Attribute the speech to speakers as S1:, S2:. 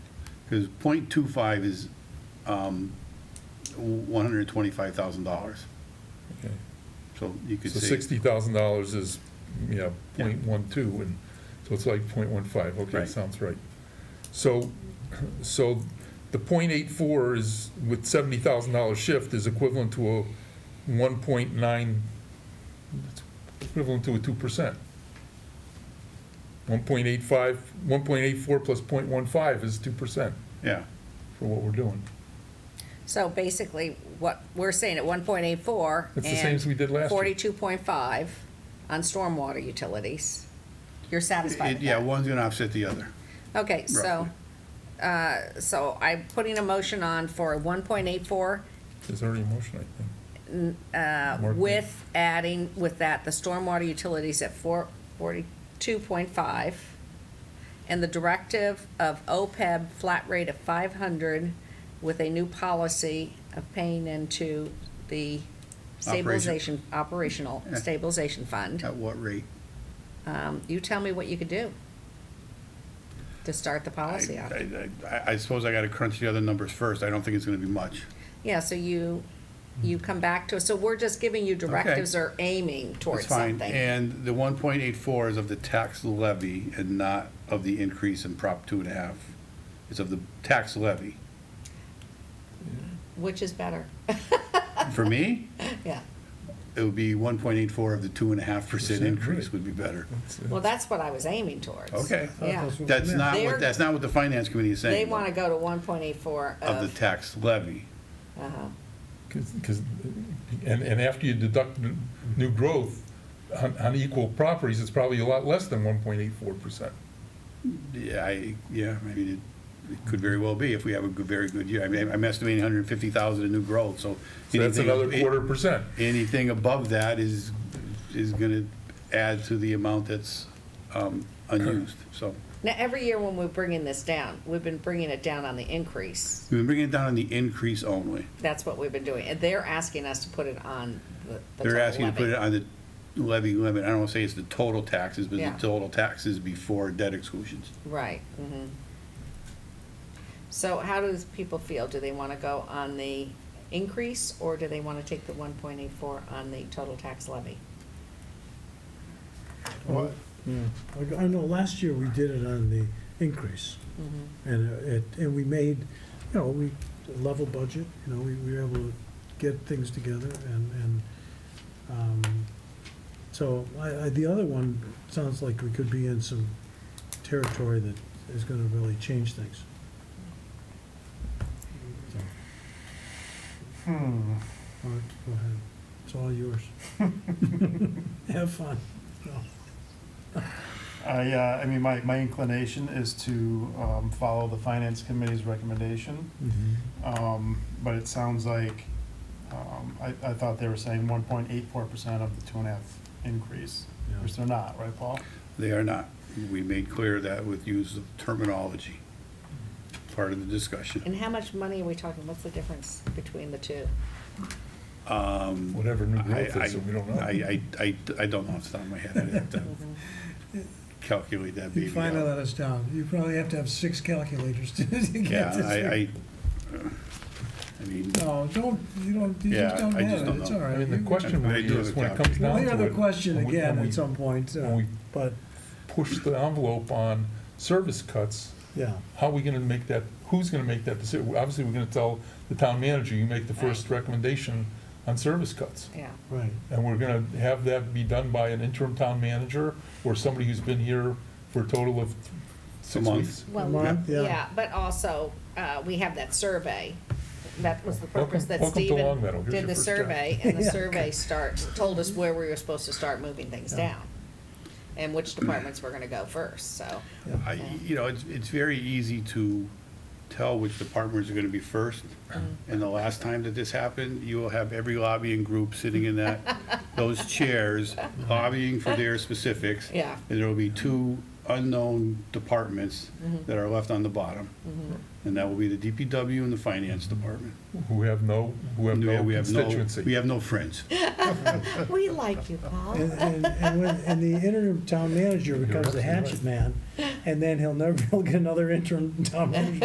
S1: Because point two five is um, one hundred twenty-five thousand dollars.
S2: Okay.
S1: So you could
S2: So
S1: say,
S2: sixty thousand dollars is, you know,
S1: Yeah.
S2: point one two, and, so it's like point one five, okay,
S1: Right.
S2: sounds right. So, so the point eight four is, with seventy thousand dollar shift, is equivalent to a one point nine, equivalent to a two percent. One point eight five, one point eight four plus point one five is two percent
S1: yeah,
S2: for what we're doing.
S3: So basically, what, we're saying at one point eight four.
S2: It's the same as we did last year.
S3: Forty-two point five on stormwater utilities. You're satisfied
S1: It-
S3: with
S1: yeah,
S3: that?
S1: one's gonna offset the other.
S3: Okay, so, uh, so I'm putting a motion on for one point eight four
S2: There's already a motion, I think. Mark,
S3: uh, with adding, with that, the stormwater utilities at four, forty-two point five, and the directive of OPEB flat rate of five hundred with a new policy of paying into the stabilization, operational
S1: Yeah.
S3: stabilization fund.
S1: At what rate?
S3: Um, you tell me what you could do to start the
S1: I,
S3: policy off.
S1: I, I- I suppose I gotta crunch the other numbers first. I don't think it's gonna be much.
S3: Yeah, so you, you
S1: Hmm.
S3: come back to, us. so we're just giving you directives or aiming
S1: That's
S3: towards
S1: fine.
S3: something.
S1: And the one point eight four is of the tax levy and not of the increase in Prop two and a half. It's of the tax levy.
S3: Which is better,
S1: For me,
S3: yeah.
S1: it would be one point eight four of the two and a half percent
S2: Percent,
S1: increase
S2: right. Mm-hmm.
S1: would be better.
S2: That's-
S3: Well, that's what I was aiming towards.
S1: Okay.
S3: Yeah.
S1: That's not
S3: They're-
S1: what, that's not what the finance committee is saying.
S3: They uh, want to go to one point eight four
S1: Of the
S3: of,
S1: tax levy.
S3: uh-huh.
S2: Because, and, and after you deduct n- new growth on, on equal properties, it's probably a lot less than one point eight four percent.
S1: Yeah, I, yeah, I mean, it, it could very well be if we have a good, very good year. I mean, I'm estimating hundred and fifty thousand in new growth, so.
S2: So that's
S1: anything-
S2: another quarter percent.
S1: Anything above that is, is gonna add to the amount that's, um, unused, so.
S3: Now, every year when we're bringing this down, we've been bringing it down on the increase.
S1: We've been bringing it down on the increase only.
S3: That's what we've been doing. And they're asking us to put it on the. the
S1: They're
S3: total
S1: asking to put
S3: levy.
S1: it on the levy limit. I don't wanna say it's the total taxes, but the
S3: Yeah.
S1: total taxes before debt exclusions.
S3: Right, mhm. So how does people feel? Do they want to go on the increase or do they want to take the one point eight four on the total tax levy?
S4: Well, I- I know last year we did it on the increase, and uh, it, and we made, you know, we, a level budget, you know, we we were able to get things together, and, and, um, so, I, I, the other one, sounds like we could be in some territory that is gonna really change things. So. All right, go ahead, it's all yours. Have fun. No.
S5: I, uh, I mean, my, my inclination is to um, follow the finance committee's recommendation, um, but it sounds like, um, I, I thought they were saying one point eight four percent of the two and a half increase,
S4: Yeah.
S5: which they're not, right, Paul?
S1: They are not. We made clear that with use of terminology, part of the discussion.
S3: And how much money are we talking? What's the difference between the two?
S2: Whatever new
S1: I,
S2: growth is, so we don't know.
S1: I, I, I I don't know off the top of my head. I'd have to calculate that
S6: You
S1: baby
S6: find all
S1: out.
S6: that us down. You probably have to have six calculators to to
S1: Yeah,
S6: get this.
S1: I,
S6: thing.
S1: I, I mean,
S6: No, don't, you don't, you
S1: Yeah,
S6: just don't
S1: I just
S6: have it.
S1: don't
S6: It's
S1: know.
S6: all
S2: I
S6: right.
S2: mean, the
S6: You-
S2: question
S1: I
S2: really
S1: do have
S2: is,
S1: a
S2: when it comes
S1: calculator.
S2: down
S6: Well,
S2: to it.
S6: the other question
S2: when we-
S6: again
S2: when
S6: at
S2: we
S6: some point, uh,
S2: when we-
S6: but,
S2: Push the envelope on service cuts,
S6: yeah.
S2: how are we gonna make that, who's gonna make that decision? Obviously, we're gonna tell the town manager, you make the first recommendation on service cuts.
S3: Yeah.
S6: Right.
S2: And we're gonna have that be done by an interim town manager or somebody who's been here for a total of six
S1: month.
S2: weeks?
S3: Well,
S6: Month, yeah.
S3: yeah, but also, uh, we have that survey. That was the
S2: Welcome-
S3: purpose that
S2: welcome to Long Meadow.
S3: Stephen
S2: Here's
S3: did
S2: your
S3: the
S2: first job.
S3: survey, and the
S6: Yeah.
S3: survey start, told us where we were supposed to start moving things down. And which departments were gonna go first, so,
S1: I, you know, it's, it's very easy to tell which departments are gonna be first. And the last time that this happened, you will have every lobbying group sitting in that, those chairs lobbying for their specifics.
S3: Yeah.
S1: And there will be two unknown departments that are left on the bottom. And that will be the DPW and the finance department.
S2: who have no, who have no
S1: We have no- We
S2: constituency.
S1: have no friends.
S3: we like you, Paul.
S6: And, and, and when, and the interim town manager becomes the hatchet man, and then he'll never, he'll get another interim town manager.